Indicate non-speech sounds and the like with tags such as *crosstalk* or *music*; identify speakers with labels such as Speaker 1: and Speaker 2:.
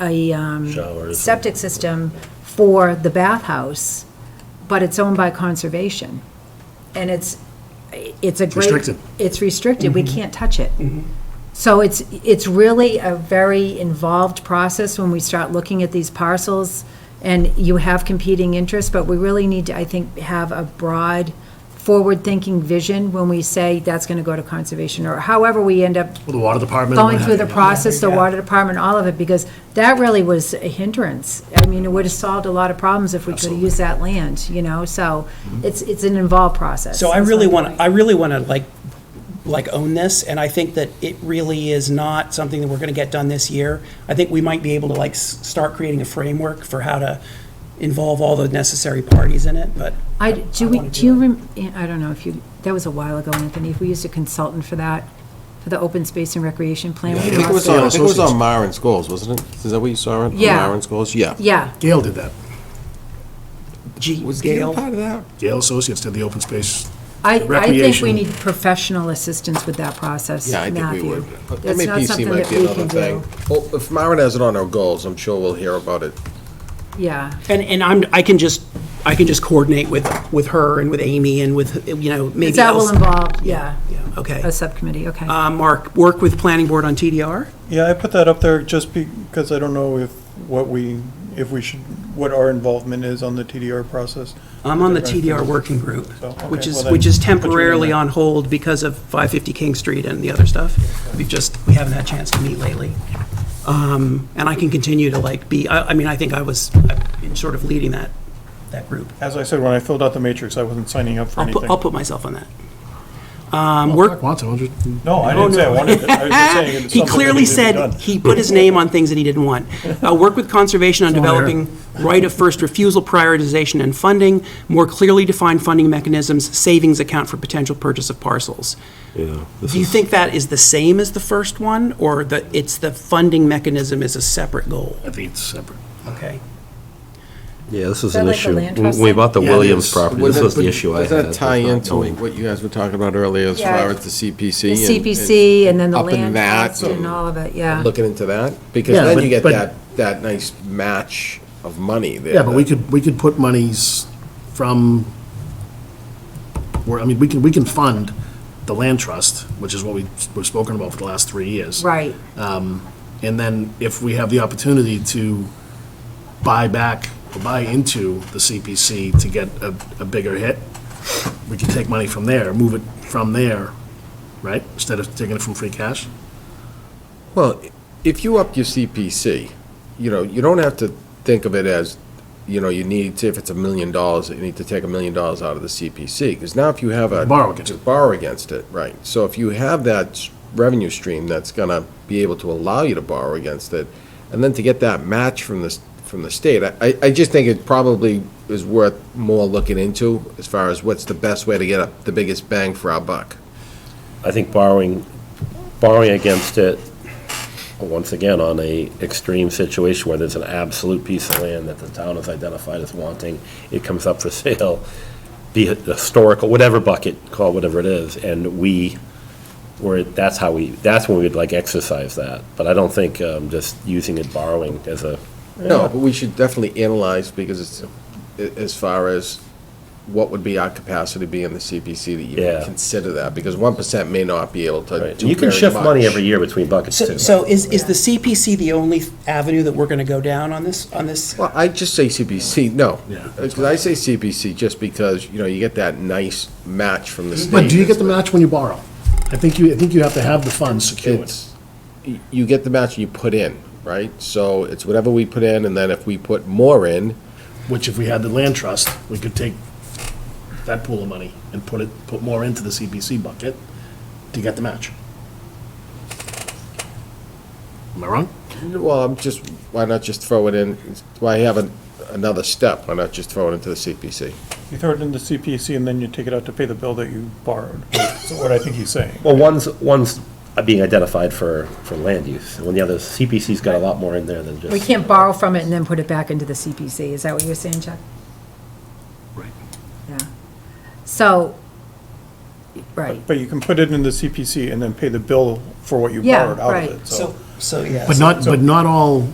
Speaker 1: a um,
Speaker 2: Showers.
Speaker 1: septic system for the bathhouse, but it's owned by conservation. And it's, it's a great.
Speaker 3: Restricted.
Speaker 1: It's restricted, we can't touch it. So it's, it's really a very involved process when we start looking at these parcels, and you have competing interests, but we really need to, I think, have a broad, forward-thinking vision when we say that's going to go to conservation, or however we end up
Speaker 3: Well, the water department.
Speaker 1: going
Speaker 3: what
Speaker 1: through the
Speaker 3: have you.
Speaker 1: process, the water department, all of it, because that really was a hindrance. I mean, it would have solved a lot of problems if we could have used that land, you know, so it's, it's an involved process.
Speaker 4: So I really want, I really want to like, like own this, and I think that it really is not something that we're going to get done this year. I think we might be able to like s- start creating a framework for how to involve all the necessary parties in it, but.
Speaker 1: I, do we,
Speaker 4: wanna
Speaker 1: do
Speaker 4: do
Speaker 1: you,
Speaker 4: it.
Speaker 1: rem- yeah, I don't know if you, that was a while ago, Anthony, if we used a consultant for that, for the open space and recreation plan. we
Speaker 5: I think it was
Speaker 1: lost
Speaker 5: on, I think it was on Myron's goals, wasn't it? Is that what you saw it? On
Speaker 1: Yeah.
Speaker 5: Myron's goals, yeah.
Speaker 1: Yeah,
Speaker 3: Gail did that.
Speaker 4: Gee,
Speaker 5: Was Gail
Speaker 4: Gail,
Speaker 5: part of that?
Speaker 3: Gail Associates did the open space.
Speaker 1: I, I think we
Speaker 3: Recreation.
Speaker 1: need professional assistance with that process,
Speaker 5: Yeah, I
Speaker 1: Matthew.
Speaker 5: think we would. But
Speaker 1: That's not
Speaker 5: MAPC
Speaker 1: something
Speaker 5: might
Speaker 1: that
Speaker 5: be
Speaker 1: we
Speaker 5: another
Speaker 1: can
Speaker 5: thing.
Speaker 1: do.
Speaker 5: Well, if Myron has it on our goals, I'm sure we'll hear about it.
Speaker 1: Yeah.
Speaker 4: and, and I'm, I can just, I can just coordinate with, with her and with Amy and with, you know, maybe else.
Speaker 1: That will involve, yeah,
Speaker 4: Yeah, Okay.
Speaker 1: a subcommittee, okay.
Speaker 4: Uh, Mark, work with planning board on TDR?
Speaker 6: Yeah, I put that up there just because I don't know if, what we, if we should, what our involvement is on the TDR process.
Speaker 4: I'm on the TDR working group,
Speaker 6: So, okay,
Speaker 4: which is,
Speaker 6: well then,
Speaker 4: which is
Speaker 6: put your name
Speaker 4: temporarily
Speaker 6: there.
Speaker 4: on hold because of 550 King Street and the other stuff. We've just, we haven't had a chance to meet lately. Um, And I can continue to like be, I, I mean, I think I was uh, in sort of leading that, that group.
Speaker 6: As I said, when I filled out the matrix, I wasn't signing up for
Speaker 4: I'll put, I'll
Speaker 6: anything.
Speaker 4: put myself on that. Um, Work,
Speaker 3: Want to, I'll just-
Speaker 6: No, I didn't say I wanted it. I was just saying it's
Speaker 4: Oh, *laughs* he
Speaker 6: something that
Speaker 4: clearly
Speaker 6: needed to be
Speaker 4: said
Speaker 6: done.
Speaker 4: he put his name on things that he didn't want. Uh, Work with conservation on developing right of first refusal prioritization and funding, more clearly defined funding mechanisms, savings account for potential purchase of parcels. Do you think that is the same as the first one, or that it's the funding mechanism is a separate goal?
Speaker 3: I think it's separate.
Speaker 4: Okay.
Speaker 7: Yeah, this is
Speaker 1: that
Speaker 7: an
Speaker 1: like a
Speaker 7: issue.
Speaker 1: land
Speaker 7: When
Speaker 1: trust
Speaker 7: We
Speaker 1: thing?
Speaker 7: bought the
Speaker 3: Yeah, it
Speaker 7: Williams
Speaker 3: is.
Speaker 7: property,
Speaker 5: Would
Speaker 7: this
Speaker 5: that-
Speaker 7: was the
Speaker 5: would-
Speaker 7: issue I had.
Speaker 5: Does that
Speaker 7: with
Speaker 5: tie
Speaker 7: not
Speaker 5: into
Speaker 7: knowing.
Speaker 5: what you guys were talking about earlier as
Speaker 1: Yeah.
Speaker 5: far as the CPC?
Speaker 1: The
Speaker 5: and-
Speaker 1: CPC and then the
Speaker 5: up in
Speaker 1: land
Speaker 5: that
Speaker 1: trust and all of it, yeah.
Speaker 5: Looking into that? Because
Speaker 3: Yeah,
Speaker 5: then
Speaker 3: but-
Speaker 5: you get
Speaker 3: but-
Speaker 5: that, that nice match of money there.
Speaker 3: Yeah, but we
Speaker 5: that-
Speaker 3: could, we could put monies from, where, I mean, we can, we can fund the land trust, which is what we, we've spoken about for the last three years.
Speaker 1: Right,
Speaker 3: And then if we have the opportunity to buy back, or buy into the CPC to get a, a bigger hit, we can take money from there, move it from there, right? Instead of taking it from free cash?
Speaker 5: Well, if you up your CPC, you know, you don't have to think of it as, you know, you need to, if it's a million dollars, you need to take a million dollars out of the CPC, because now if you have a.
Speaker 3: Borrow against it.
Speaker 5: Borrow against it, right. So if you have that s- revenue stream that's gonna be able to allow you to borrow against it, and then to get that match from the, s- from the state, I- I, I just think it probably is worth more looking into as far as what's the best way to get a- the biggest bang for our buck.
Speaker 2: I think borrowing, borrowing against it, once again, on a extreme situation where there's an absolute piece of land that the town has identified as wanting, it comes up for *laughs* sale, be it historical, whatever bucket, call it whatever it is, and we, where, that's how we, that's when we'd like exercise that. But I don't think um, just using it, borrowing as a,
Speaker 5: No, but we should definitely analyze, because it's, a- as far as what would be our capacity be in the CPC that you
Speaker 2: Yeah.
Speaker 5: would consider that, because one percent may not be able to
Speaker 2: Right.
Speaker 5: do
Speaker 2: You can
Speaker 5: very
Speaker 2: shift money
Speaker 5: much.
Speaker 2: every year between buckets,
Speaker 4: So,
Speaker 2: too.
Speaker 4: so is, is the CPC the only avenue that we're going to go down on this, on this?
Speaker 5: Well, I just say CPC, no.
Speaker 3: Yeah.
Speaker 5: Because I say CPC just because, you know, you get that nice match from the state.
Speaker 3: But do you get the match when you borrow? I think you, I think you have to have the funds secured.
Speaker 5: It's, y- you get the match you put in, right? So it's whatever we put in, and then if we put more in,
Speaker 3: Which if we had the land trust, we could take that pool of money and put it, put more into the CPC bucket to get the match. Am I wrong?
Speaker 5: Well, I'm just, why not just throw it in, why have an- another step, why not just throw it into the CPC?
Speaker 6: You throw it into CPC and then you take it out to pay the bill that you borrowed. That's what I think he's saying.
Speaker 2: Well, one's, one's being identified for, for land use, and the other, CPC's got a lot more in there than just.
Speaker 1: we can't borrow from it and then put it back into the CPC, is that what you're saying, Chuck?
Speaker 3: Right.
Speaker 1: Yeah. So, right,
Speaker 6: But you can put it in the CPC and then pay the bill for what you
Speaker 1: Yeah,
Speaker 6: borrowed out
Speaker 1: right.
Speaker 6: of it,
Speaker 4: So,
Speaker 6: so.
Speaker 8: so, yeah.
Speaker 3: But
Speaker 8: so-
Speaker 3: not, but not all